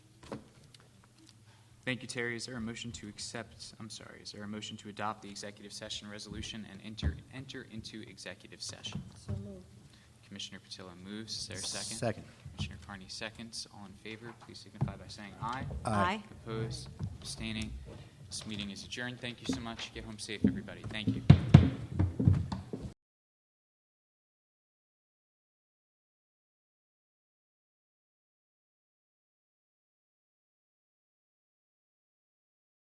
Thank you, Terry. Is there a motion to accept, I'm sorry, is there a motion to adopt the executive session resolution and enter, enter into executive session? So moved. Commissioner Patillo moves. Is there a second? Second. Commissioner Carney seconds. All in favor, please signify by saying aye. Aye. Opposed, abstaining. This meeting is adjourned. Thank you so much. Get home safe, everybody. Thank you.